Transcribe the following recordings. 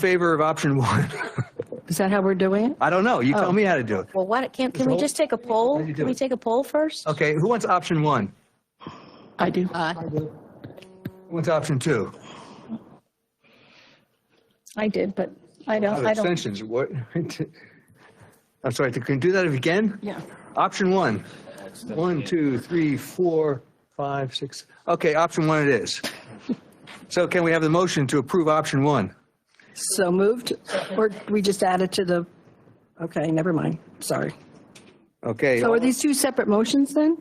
favor of option one? Oh. Is that how we're doing it? I don't know. You tell me how to do it. Well, why, don't- can, can we just take a poll? How'd you do Can we it? take a poll first? Okay, who wants option one? I do. Who wants option two? Oh, I did, but I Oh, don't, I don't. Abstentions, what? I'm sorry, can you do that again? Yeah. Option one. One, two, three, four, five, six. Okay, option one it is. So can we have the motion to approve option one? So moved, or we just add it to the, okay, never mind, sorry. Okay. So are these two separate motions then?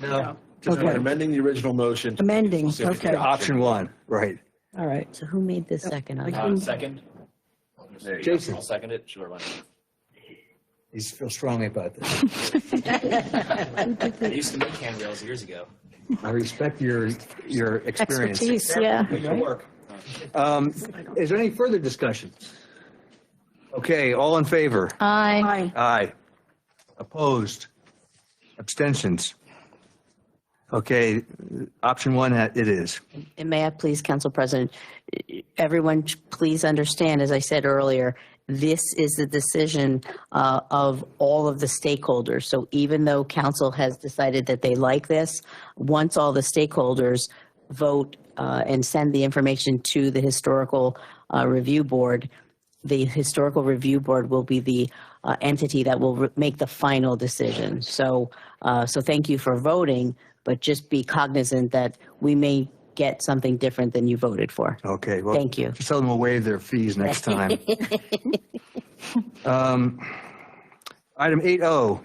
No. Just we're amending the original motion. Amending, So- okay, all Option one, right. right. So who made the second on that? Uh, Second? There you go. Jason. I'll second it, sure, why not? He's feel strongly about this. I used to make handrails years ago. I respect your, your experience. Expertise, yeah. Um, Is there any further discussion? Okay, all in favor? Aye. Aye. Aye. Opposed? Abstentions? Okay, option one, it is. And may I please, Council President, everyone, please understand, as I said earlier, this is the decision uh, of all of the stakeholders. So even though council has decided that they like this, once all the stakeholders vote uh, and send the information to the Historical uh, Review Board, the Historical Review Board will be the uh, entity that will re- make the final decision. So, uh, so thank you for voting, but just be cognizant that we may get something different than you voted for. Okay. well, Thank you. Just tell them we'll waive their fees next time. Um, Item 8O,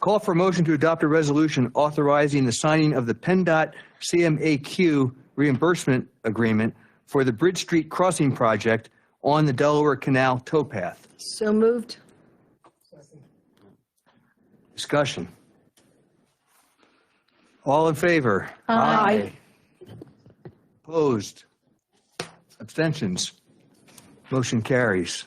call for motion to adopt a resolution authorizing the signing of the PennDOT CMAQ reimbursement agreement for the Bridge Street Crossing Project on the Delaware Canal towpath. So moved, Discussion. All in favor? Aye. Opposed? Abstentions? Motion carries.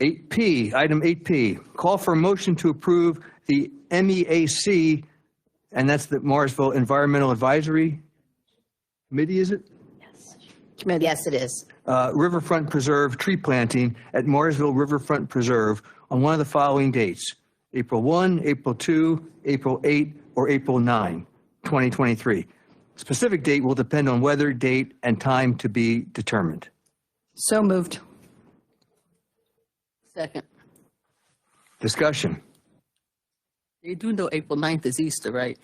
8P, item 8P, call for a motion to approve the MEAC, and that's the Morrisville Environmental Advisory Committee, is it? Yes, it is. Uh, Riverfront Preserve tree planting at Morrisville Riverfront Preserve on one of the following dates, April 1, April 2, April 8, or April 9, 2023. Specific date will depend on weather, date, and time to be determined. so moved. Second. Discussion. You do know April 9th is Easter, right?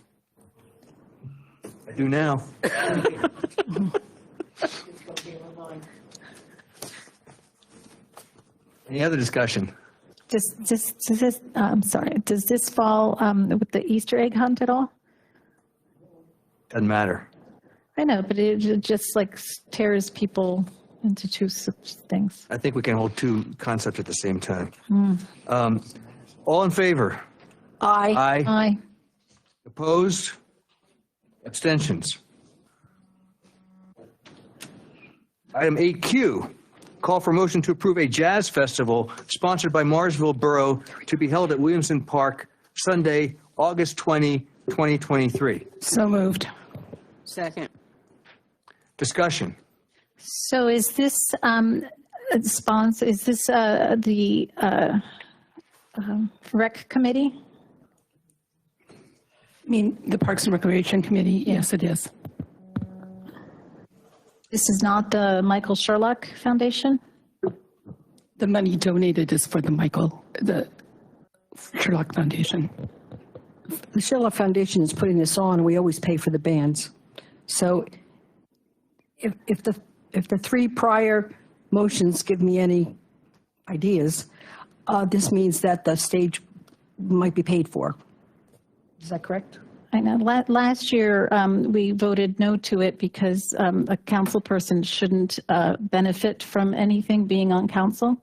I do now. Any other discussion? Does, does, does this, uh, I'm sorry, does this fall um, with the Easter egg hunt at all? Doesn't matter. I know, but it ju- just like tears people into two such things. I think we can hold two concepts at the same time. Um, All in favor? Aye. Aye. Aye. Opposed? Abstentions? Item 8Q, call for motion to approve a jazz festival sponsored by Marsville Borough to be held at Williamson Park Sunday, August 20, 2023. So moved. Second. Discussion. So is this um, a sponsor, is this uh, the uh, um, rec committee? I mean, the Parks and Recreation Committee, yes, it is. This is not the Michael Sherlock Foundation? The money donated is for the Michael, the Sherlock Foundation. The Sherlock Foundation is putting this on, we always pay for the bands. So if, if the, if the three prior motions give me any ideas, uh, this means that the stage might be paid for. Is that correct? I know, la- last year, um, we voted no to it because, um, a council person shouldn't, uh, benefit from anything being on council.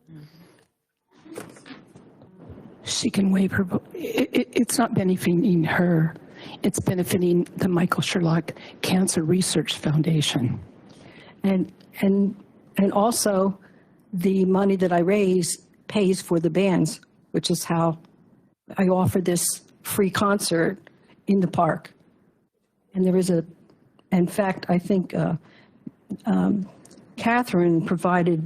She can waive her vote. I i it's not benefiting her. It's benefiting the Michael Sherlock Cancer Research Foundation. And, and, and also, the money that I raise pays for the bands, which is how I offer this free concert in the park. And there is a, in fact, I think uh, um, Catherine provided